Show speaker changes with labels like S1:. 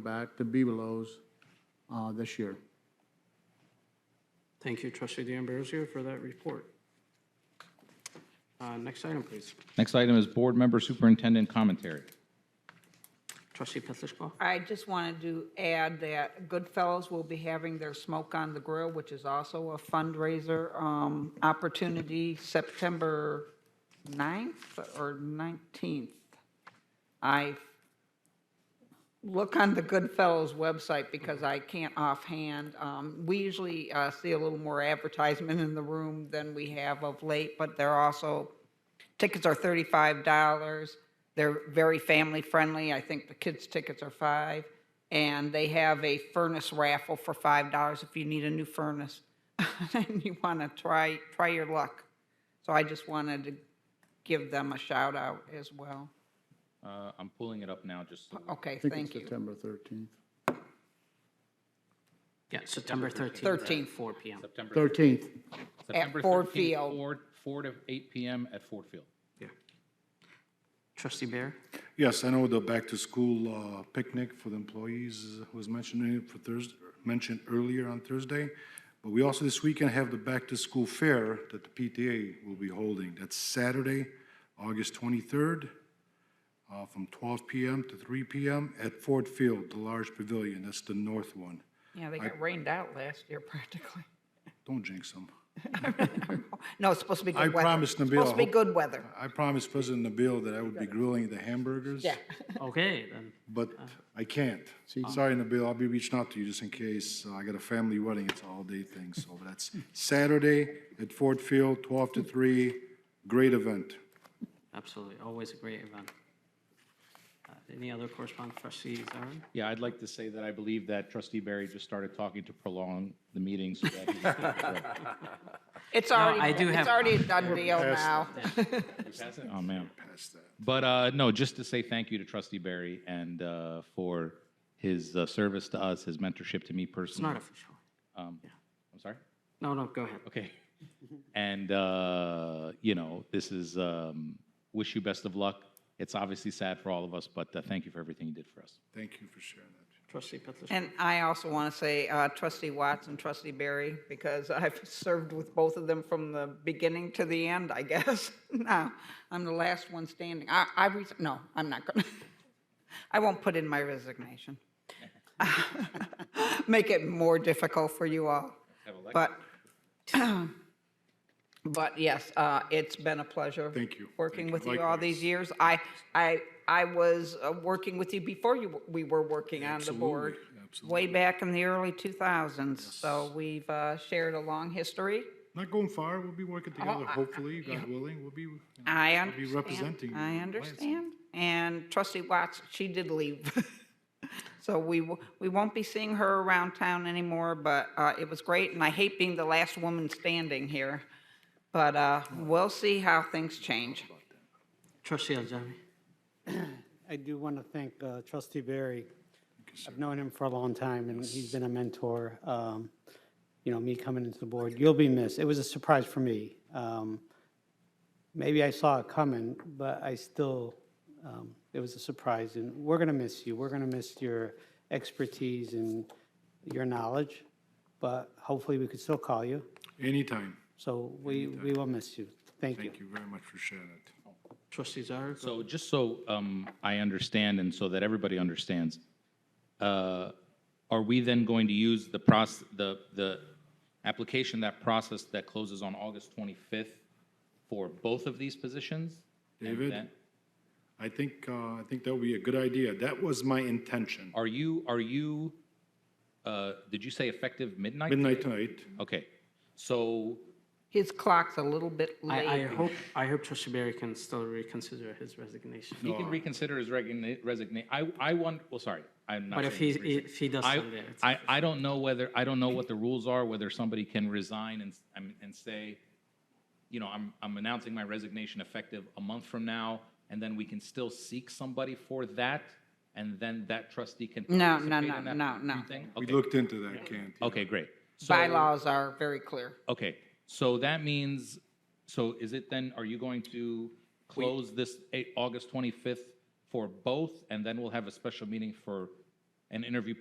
S1: back to Bebelows uh, this year.
S2: Thank you, trustee D'Ambrosio, for that report. Uh, Next item, please.
S3: Next item is Board Member Superintendent Commentary.
S2: Trustee Petlicoff?
S4: I just wanted to add that Goodfellas will be having their Smoke on the Grill, which is also a fundraiser um, opportunity, September 9th or 19th. I look on the Goodfellas website because I can't offhand. Um, We usually uh, see a little more advertisement in the room than we have of late, but they're also Tickets are thirty-five dollars. They're very family-friendly. I think the kids' tickets are five. And they have a furnace raffle for five dollars if you need a new furnace and you want to try, try your luck. So I just wanted to give them a shout out as well.
S3: Uh, I'm pulling it up now, just so
S4: Okay,
S1: I think it's
S4: thank you.
S1: September 13th.
S2: Yeah, September 13th.
S4: 13th.
S2: Four PM.
S3: September
S1: 13th,
S3: September
S4: Ford
S3: 13th,
S4: Field.
S3: four- Four to eight PM at Ford Field.
S2: Yeah. Trustee Bear?
S5: Yes, I know the back-to-school uh, picnic for the employees was mentioned in- for Thursday, mentioned earlier on Thursday. But we also this weekend have the back-to-school fair that the PTA will be holding. That's Saturday, August 23rd, uh, from 12 PM to 3 PM at Ford Field, the large pavilion. That's the north one.
S4: Yeah, they got rained out last year practically.
S5: Don't jinx them.
S4: No, it's supposed to be
S5: I
S4: good weather. It's
S5: promised Nabil,
S4: Supposed to be
S5: hope-
S4: good weather.
S5: I promised President Nabil that I would be grilling the hamburgers.
S4: Yeah.
S2: Okay, then.
S5: But I can't. Sorry, Nabil, I'll be reaching out to you just in case. Uh, I got a family wedding, it's an all-day thing, so that's Saturday at Ford Field, 12 to 3, great event.
S2: Absolutely, always a great event. Uh, Any other correspondence, trustee Zarin?
S3: Yeah, I'd like to say that I believe that trustee Barry just started talking to prolong the meeting so that he can...
S4: It's already,
S2: I do have-
S4: it's already a done deal now.
S3: Oh, man. But, uh, no, just to say thank you to trustee Barry and, uh, for his, uh, service to us, his mentorship to me
S2: It's not
S3: personally.
S2: official.
S3: Um, I'm sorry?
S2: No, no, go ahead.
S3: Okay. And, uh, you know, this is, um, wish you best of luck. It's obviously sad for all of us, but, uh, thank you for everything you did for us.
S5: Thank you for sharing that.
S2: Trustee Petlicoff?
S4: And I also want to say uh, trustee Watts and trustee Barry, because I've served with both of them from the beginning to the end, I guess. Now, I'm the last one standing. I, I, res- no, I'm not going to. I won't put in my resignation. Make it more difficult for you all. But, but yes, uh, it's been a pleasure.
S5: Thank you.
S4: Working
S5: Thank
S4: with
S5: you.
S4: you all these years. I, I, I was uh, working with you before you, we were working on the board. Way back in the early 2000s. So we've uh, shared a long history.
S5: Not going far, we'll be working together,
S4: I-
S5: hopefully, God willing, we'll be, you know,
S4: I
S5: I'll be
S4: understand.
S5: representing
S4: I
S5: Lansing.
S4: understand. And trustee Watts, she did leave. So we, wo- we won't be seeing her around town anymore, but uh, it was great. And I hate being the last woman standing here. But uh, we'll see how things change.
S2: Trustee Aljami?
S6: I do want to thank uh, trustee Barry. I've known him for a long time, and he's been a mentor. um, You know, me coming into the board, you'll be missed. It was a surprise for me. Um, Maybe I saw it coming, but I still, um, it was a surprise, and we're going to miss you. We're going to miss your expertise and your knowledge, but hopefully we could still call you.
S5: Anytime,
S6: So we, we will miss you. Thank you.
S5: thank you very much for sharing it.
S2: Trustee Zarin? go-
S3: So just so um, I understand and so that everybody understands, uh, are we then going to use the process, the, the application, that process that closes on August 25th for both of these positions? And
S5: David?
S3: then-
S5: I think, uh, I think that would be a good idea, that was my intention.
S3: Are you, are you, uh, did you say effective midnight?
S5: Midnight tonight,
S3: Okay, so,
S4: His clock's a little bit
S2: I, I
S4: late.
S2: hope, I hope trustee Barry can still reconsider his resignation.
S3: he can reconsider his resignation. I, I want, well, sorry, I'm not
S2: But if
S3: saying
S2: he,
S3: he's resigning.
S2: if he
S3: I,
S2: doesn't, then it's-
S3: I, I don't know whether, I don't know what the rules are, whether somebody can resign and, s- and- and say, you know, I'm, I'm announcing my resignation effective a month from now, and then we can still seek somebody for that, and then that trustee can
S4: No, no,
S3: participate
S4: no,
S3: in that
S4: no, no.
S3: new thing?
S5: we
S3: Okay.
S5: looked into that, Can't.
S3: Okay, great. So-
S4: Bylaws are very clear.
S3: Okay, so that means, so is it then, are you going to close this eight- August 25th for both, and then we'll have a special meeting for and interview